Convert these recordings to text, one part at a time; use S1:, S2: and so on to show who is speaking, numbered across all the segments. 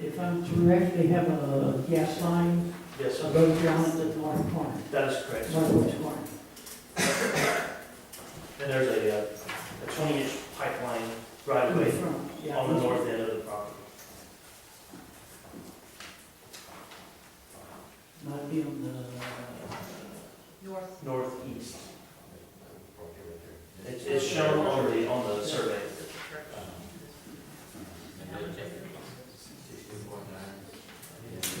S1: If I'm correct, they have a gas line
S2: Yes, sir.
S1: above ground at the north corner,
S2: that is correct.
S1: northwest corner.
S2: And there's a, uh, a twenty-inch pipeline right
S1: In the
S2: away
S1: front, yeah.
S2: on the north end of the property.
S1: Might be on the,
S3: North.
S2: northeast. It's, it's shown on the, on the survey.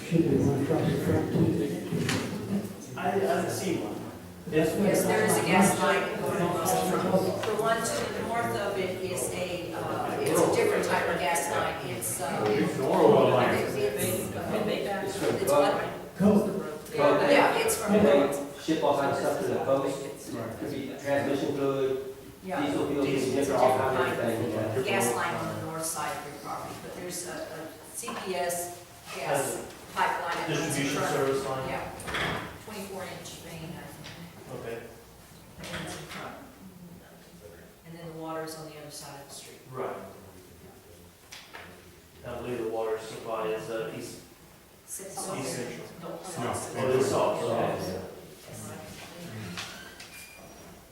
S1: should be one across the front too.
S2: I, I didn't see one. Yes,
S3: Yes, there is a gas line going across the front. The one to the north of it is a, uh, it's a different type of gas line. It's, uh, it's, it's, uh,
S4: It's from
S3: it's
S4: boat,
S3: what?
S1: Coke,
S3: Yeah, it's from,
S4: and they ship all kinds of stuff to the coast, could be transmission fluid,
S3: yeah,
S4: diesel fuel, different, all kinds of things. yeah.
S3: gas line on the north side of your property. But there's a, a CPS
S2: Has
S3: gas pipeline. that runs in
S2: distribution
S3: front.
S2: service line,
S3: Yeah, twenty-four inch main, I think.
S2: okay,
S3: And then the water is on the other side of the street.
S2: right. I believe the water supply is, uh, east, east central. Oh, it's south, okay.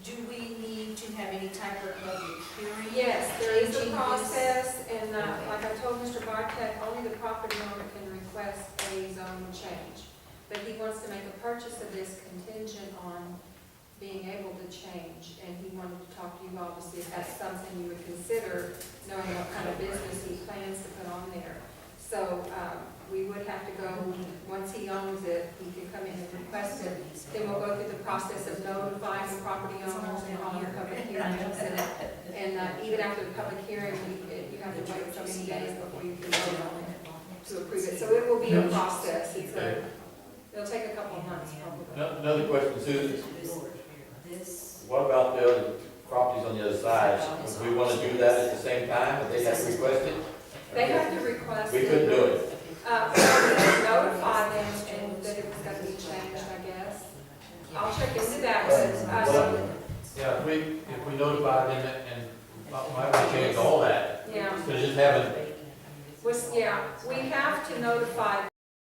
S3: Do we need to have any type of public hearing?
S5: Yes, there is
S3: Changing
S5: a
S3: use?
S5: process, and uh, like I told Mr. Bartek, only the property owner can request a zone change. But he wants to make a purchase of this contingent on being able to change, and he wanted to talk to you all to see if that's something you would consider, knowing what kind of business he plans to put on there. So um, we would have to go, once he owns it, he could come in and request it. Then we'll go through the process of notifying the property owners and all the public hearings, and and uh, even after the public hearing, we- it- you have to wait so many days before you can vote on it to approve it. So it will be a process. It's a- It'll take a couple of months probably.
S6: Ano- Another question, Susan,
S3: This,
S6: what about the other properties on the other side? Would we want to do that at the same time, if they have requested?
S5: They have to request.
S6: We couldn't do it.
S5: Uh, we Notify them and that it was going to be changed, I guess. I'll check into that, but uh,
S6: Yeah, if we, if we notify them and, and why would we change all that?
S5: yeah.
S6: So just have it,
S5: Was, yeah, we have to notify